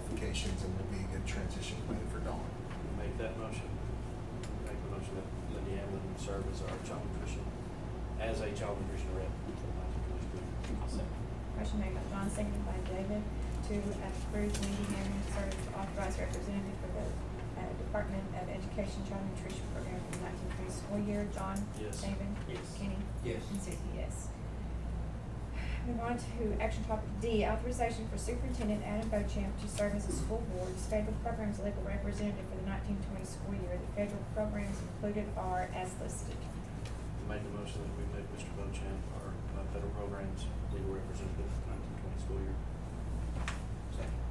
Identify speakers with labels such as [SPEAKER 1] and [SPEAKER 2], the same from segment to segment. [SPEAKER 1] qualifications and would be a good transition plan for Dawn.
[SPEAKER 2] Make that motion. Make the motion that Lydia Hamlin serve as our child nutrition, as a child nutrition rep. for Montague Village Group. I'll second.
[SPEAKER 3] Motion made by John, seconded by David, to approve Wendy Marion to serve as authorized representative for the uh, Department of Education Child Nutrition Program for the nineteen twenty school year. John?
[SPEAKER 2] Yes.
[SPEAKER 3] David?
[SPEAKER 2] Yes.
[SPEAKER 3] Kenny?
[SPEAKER 4] Yes.
[SPEAKER 3] And Susie, yes. Move on to action topic D, authorization for Superintendent Adam Bochamp to serve as a school board's federal programs legal representative for the nineteen twenty school year. The federal programs included are as listed.
[SPEAKER 2] Make the motion that we make Mr. Bochamp our uh, federal programs legal representative for nineteen twenty school year. Second.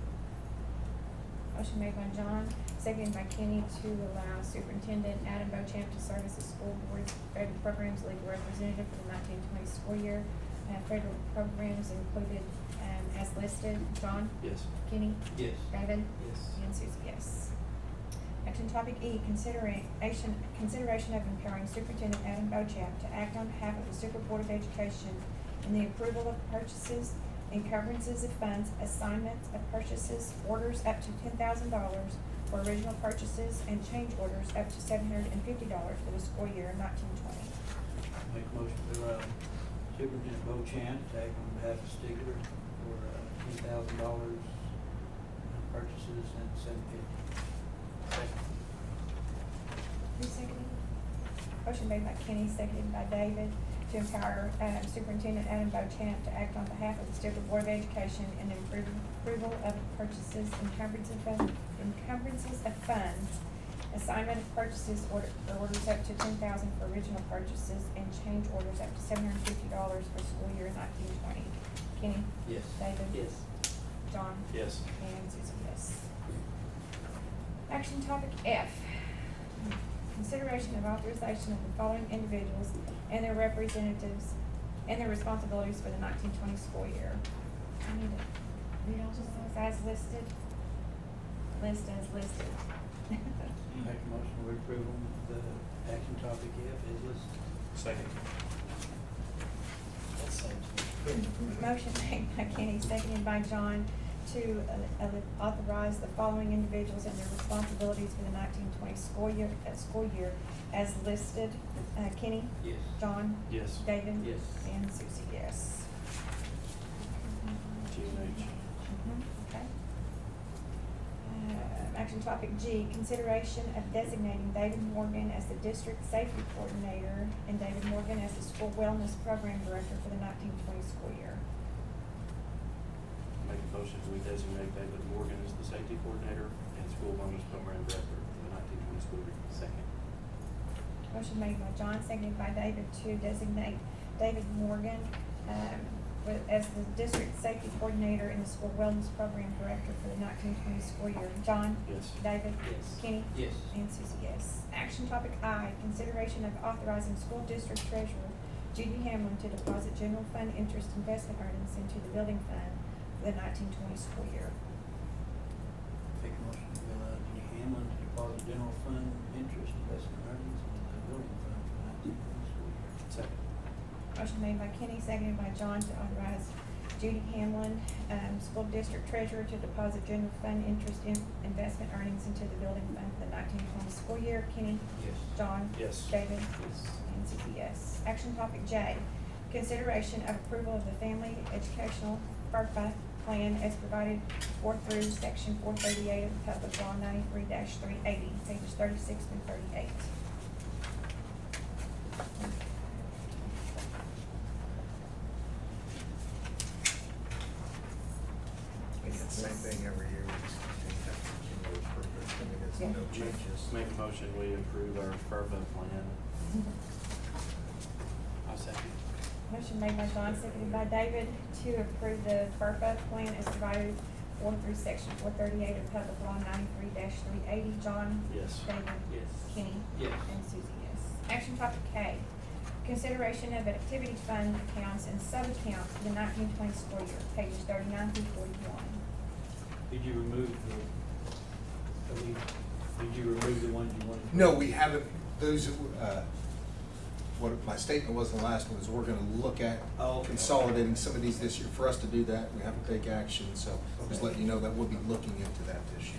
[SPEAKER 3] Motion made by John, seconded by Kenny to allow Superintendent Adam Bochamp to serve as the school board's federal programs legal representative for the nineteen twenty school year. Uh, federal programs included, um, as listed. John?
[SPEAKER 2] Yes.
[SPEAKER 3] Kenny?
[SPEAKER 4] Yes.
[SPEAKER 3] David?
[SPEAKER 4] Yes.
[SPEAKER 3] And Susie, yes. Action topic E, consideration, consideration of empowering Superintendent Adam Bochamp to act on behalf of the Super Board of Education in the approval of purchases, encumbrances of funds, assignments of purchases, orders up to ten thousand dollars for original purchases, and change orders up to seven hundred and fifty dollars for the school year nineteen twenty.
[SPEAKER 5] Make a motion to allow Superintendent Bochamp to act on behalf of Stigler for uh, ten thousand dollars in purchases and seven fifty.
[SPEAKER 3] Who seconded? Motion made by Kenny, seconded by David, to empower uh, Superintendent Adam Bochamp to act on behalf of the State Board of Education in approving approval of purchases, encumbrances of, encumbrances of funds, assignment of purchases, order, orders up to ten thousand for original purchases, and change orders up to seven hundred and fifty dollars for school year nineteen twenty. Kenny?
[SPEAKER 5] Yes.
[SPEAKER 3] David?
[SPEAKER 4] Yes.
[SPEAKER 3] John?
[SPEAKER 2] Yes.
[SPEAKER 3] And Susie, yes. Action topic F, consideration of authorization of the following individuals and their representatives and their responsibilities for the nineteen twenty school year. I need to read all of those as listed. List as listed.
[SPEAKER 5] Make a motion to approve on the action topic F is listed.
[SPEAKER 2] Second.
[SPEAKER 4] That saves me.
[SPEAKER 3] Motion made by Kenny, seconded by John, to uh, uh, authorize the following individuals and their responsibilities for the nineteen twenty school year, uh, school year as listed. Uh, Kenny?
[SPEAKER 4] Yes.
[SPEAKER 3] John?
[SPEAKER 2] Yes.
[SPEAKER 3] David?
[SPEAKER 4] Yes.
[SPEAKER 3] And Susie, yes.
[SPEAKER 2] G and H.
[SPEAKER 3] Mhm, Okay. Uh, Action topic G, consideration of designating David Morgan as the district safety coordinator and David Morgan as the school wellness program director for the nineteen twenty school year.
[SPEAKER 2] Make a motion that we designate David Morgan as the safety coordinator and school wellness program director for the nineteen twenty school year. Second.
[SPEAKER 3] Motion made by John, seconded by David to designate David Morgan, um, with, as the district safety coordinator and the school wellness program director for the nineteen twenty school year. John?
[SPEAKER 2] Yes.
[SPEAKER 3] David?
[SPEAKER 4] Yes.
[SPEAKER 3] Kenny?
[SPEAKER 4] Yes.
[SPEAKER 3] And Susie, yes. Action topic I, consideration of authorizing school district treasurer Judy Hamlin to deposit general fund interest investment earnings into the building fund for the nineteen twenty school year.
[SPEAKER 5] Make a motion to allow Jenny Hamlin to deposit general fund interest investment earnings in the building fund for nineteen twenty school year.
[SPEAKER 2] Second.
[SPEAKER 3] Motion made by Kenny, seconded by John to authorize Judy Hamlin, um, school district treasurer to deposit general fund interest in investment earnings into the building fund for the nineteen twenty school year. Kenny?
[SPEAKER 4] Yes.
[SPEAKER 3] John?
[SPEAKER 2] Yes.
[SPEAKER 3] David?
[SPEAKER 2] Yes.
[SPEAKER 3] And Susie, yes. Action topic J, consideration of approval of the Family Educational FERPA plan as provided for through section four thirty-eight of the Public Law ninety-three three eighty, pages thirty-six through thirty-eight.
[SPEAKER 1] It's the same thing every year, we just continue to have to continue to approve it. I mean, there's
[SPEAKER 3] Yeah.
[SPEAKER 1] no changes.
[SPEAKER 2] Make a motion, we approve our FERPA plan. I'll second.
[SPEAKER 3] Motion made by John, seconded by David to approve the FERPA plan as provided for through section four thirty-eight of Public Law ninety-three three eighty. John?
[SPEAKER 2] Yes.
[SPEAKER 3] David?
[SPEAKER 4] Yes.
[SPEAKER 3] Kenny?
[SPEAKER 4] Yes.
[SPEAKER 3] And Susie, yes. Action topic K, consideration of activity fund accounts and sub-accounts for the nineteen twenty school year, pages thirty-nine through forty-one.
[SPEAKER 5] Did you remove the, did you remove the ones you wanted? to-
[SPEAKER 1] No, we haven't, those, uh, what my statement was in the last one is we're gonna look at
[SPEAKER 5] Oh, okay.
[SPEAKER 1] consolidating some of these this year. For us to do that, we have to take action, so just let you know that we'll be looking into that